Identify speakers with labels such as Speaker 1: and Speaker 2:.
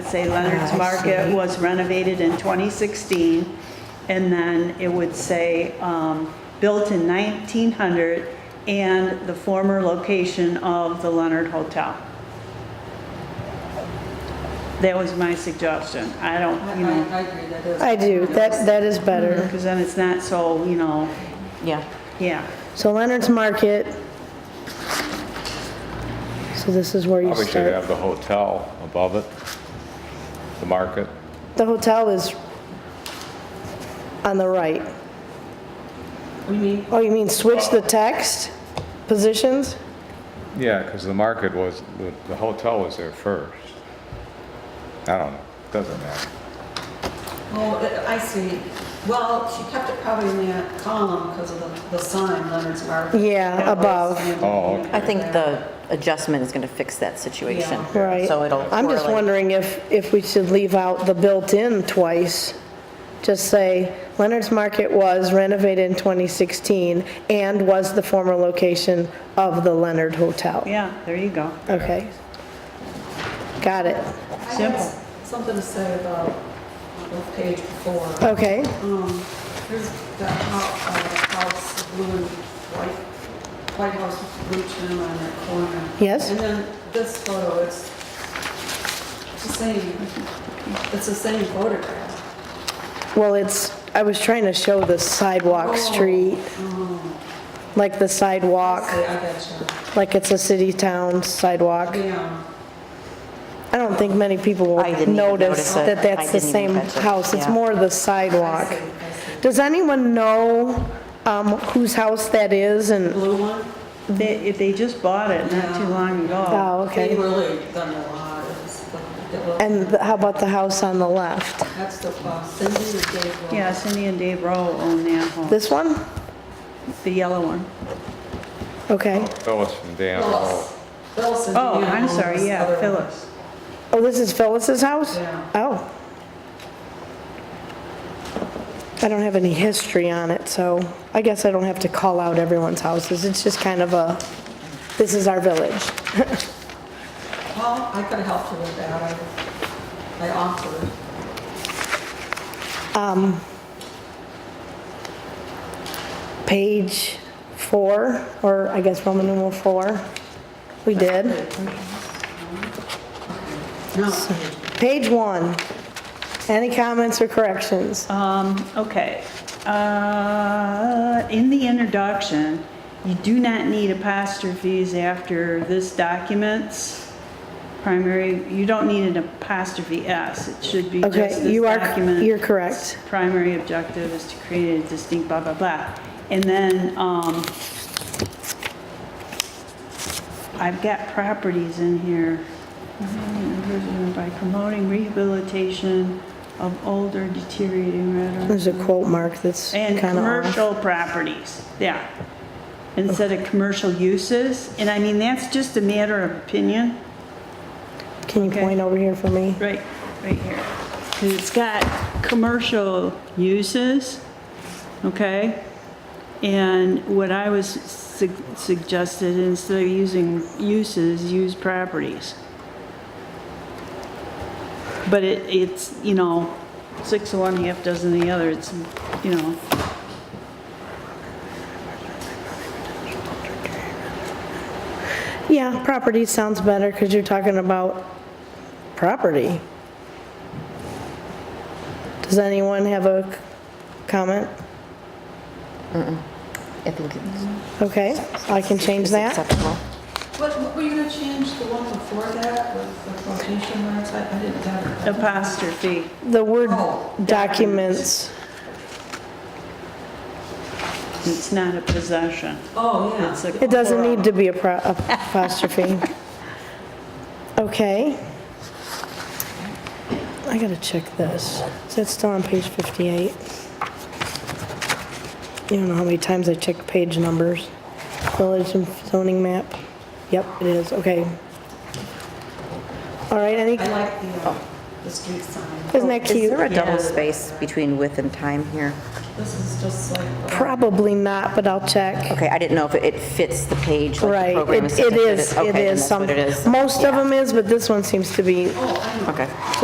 Speaker 1: say Leonard's
Speaker 2: Ah, I
Speaker 1: Market
Speaker 2: see.
Speaker 1: was renovated in 2016, and then it would say, um, built in 1900 and the former location of the Leonard Hotel. That was my suggestion. I don't,
Speaker 3: I,
Speaker 1: you know,
Speaker 3: I- I agree, that is.
Speaker 2: I do, that, that is better.
Speaker 1: because then it's not so, you know,
Speaker 4: Yeah.
Speaker 1: yeah.
Speaker 2: So Leonard's Market. So this is where you
Speaker 5: Probably should
Speaker 2: start.
Speaker 5: have the hotel above it, the market.
Speaker 2: The hotel is on the right.
Speaker 3: We mean,
Speaker 2: Oh, you mean switch the text positions?
Speaker 5: Yeah, because the market was, the- the hotel was there first. I don't know, doesn't matter.
Speaker 3: oh, I see. Well, she kept it probably in that column because of the, the sign, Leonard's Market.
Speaker 2: Yeah, above.
Speaker 5: Oh, okay.
Speaker 4: I think the adjustment is going to fix that situation.
Speaker 3: Yeah.
Speaker 2: Right.
Speaker 4: So it'll
Speaker 2: I'm just
Speaker 4: correlate.
Speaker 2: wondering if, if we should leave out the built-in twice. Just say Leonard's Market was renovated in 2016 and was the former location of the Leonard Hotel.
Speaker 1: Yeah, there you go.
Speaker 2: Okay. Got it.
Speaker 3: I had
Speaker 1: Simple.
Speaker 3: Something to say about the page before.
Speaker 2: Okay.
Speaker 3: Um, there's that house, uh, house, blue and white, white house with blue trim on that corner.
Speaker 2: Yes.
Speaker 3: And then this photo, it's the same, it's the same photograph.
Speaker 2: Well, it's, I was trying to show the
Speaker 3: Oh.
Speaker 2: sidewalk street, like the sidewalk,
Speaker 3: Say, I gotcha.
Speaker 2: like it's a city-town sidewalk.
Speaker 3: Yeah,
Speaker 2: I don't think many people
Speaker 4: I
Speaker 2: will
Speaker 4: didn't even notice
Speaker 2: notice
Speaker 4: it.
Speaker 2: that
Speaker 4: I
Speaker 2: that's the
Speaker 4: didn't even
Speaker 2: same
Speaker 4: catch it,
Speaker 2: house. It's
Speaker 4: yeah.
Speaker 2: more the
Speaker 3: I
Speaker 2: sidewalk.
Speaker 3: see, I see.
Speaker 2: Does anyone know um, whose house that is and,
Speaker 3: Blue one?
Speaker 1: They, if they just bought it not too long ago.
Speaker 2: oh,
Speaker 3: They
Speaker 2: okay.
Speaker 3: really done a lot, it's, like- it was-
Speaker 2: And the- how about the house on the left?
Speaker 3: that's the plus, Cindy and Dave. were-
Speaker 1: Yeah, Cindy and Dave Rowe own that home,
Speaker 2: This one?
Speaker 1: the yellow one.
Speaker 2: Okay.
Speaker 5: Phyllis from Dan Hall.
Speaker 3: Phyllis, Phyllis and
Speaker 1: Oh,
Speaker 3: Dan
Speaker 1: I'm
Speaker 3: own
Speaker 1: sorry,
Speaker 3: this other
Speaker 1: yeah,
Speaker 3: one.
Speaker 1: Phyllis.
Speaker 2: Oh, this is Phyllis's house?
Speaker 3: Yeah.
Speaker 2: Oh. I don't have any history on it, so I guess I don't have to call out everyone's houses. It's just kind of a, this is our village.
Speaker 3: Well, I could have helped you with that, I, I offered.
Speaker 2: Page four, or I guess Roman numeral four. We did.
Speaker 3: No,
Speaker 2: Page one. Any comments or corrections?
Speaker 1: Um, okay. Uh, in the introduction, you do not need apostrophes after this document's primary, you don't need an apostrophe S. It should be just this
Speaker 2: Okay, you are,
Speaker 1: document.
Speaker 2: you're correct.
Speaker 1: primary objective is to create a distinct blah, blah, blah. And then, um, I've got properties in here. By promoting rehabilitation of older deteriorating
Speaker 2: There's a
Speaker 1: rather.
Speaker 2: quote mark that's
Speaker 1: And
Speaker 2: kind of off.
Speaker 1: commercial properties, yeah. Instead of commercial uses, and I mean, that's just a matter of opinion.
Speaker 2: Can you
Speaker 1: okay.
Speaker 2: point over here for me?
Speaker 1: Right, right here. 'Cause it's got commercial uses, okay? And what I was sug- suggested, instead of using uses, use properties. But it, it's, you know, six of one, half dozen of the other, it's, you know,
Speaker 2: Yeah, property sounds better because you're talking about property. Does anyone have a c- comment?
Speaker 4: I think it's
Speaker 2: Okay, I can change
Speaker 4: it's
Speaker 2: that.
Speaker 4: acceptable.
Speaker 3: what, what were you gonna change the one before that with the quotation marks? I, I didn't have it.
Speaker 1: apostrophe.
Speaker 2: The word
Speaker 3: Oh,
Speaker 2: documents,
Speaker 1: It's not a possession.
Speaker 3: Oh, yeah.
Speaker 1: It's a-
Speaker 2: it doesn't need to be a pro- apostrophe. Okay. I gotta check this. Is that still on page 58? You don't know how many times I check page numbers. Village and zoning map. Yep, it is, okay. All right, any,
Speaker 3: I like the, uh, the street sign.
Speaker 2: isn't that
Speaker 4: Is
Speaker 2: cute?
Speaker 4: there a double space between with and time here?
Speaker 3: This is just like. uh,
Speaker 2: Probably not, but I'll check.
Speaker 4: Okay, I didn't know if it fits the page, like the
Speaker 2: Right,
Speaker 4: program
Speaker 2: it
Speaker 4: is
Speaker 2: it
Speaker 4: suggested.
Speaker 2: is,
Speaker 4: Okay,
Speaker 2: it
Speaker 4: then
Speaker 2: is
Speaker 4: that's what
Speaker 2: some,
Speaker 4: it is.
Speaker 2: most of them is, but this one seems to be
Speaker 3: Oh, I know.
Speaker 4: Okay.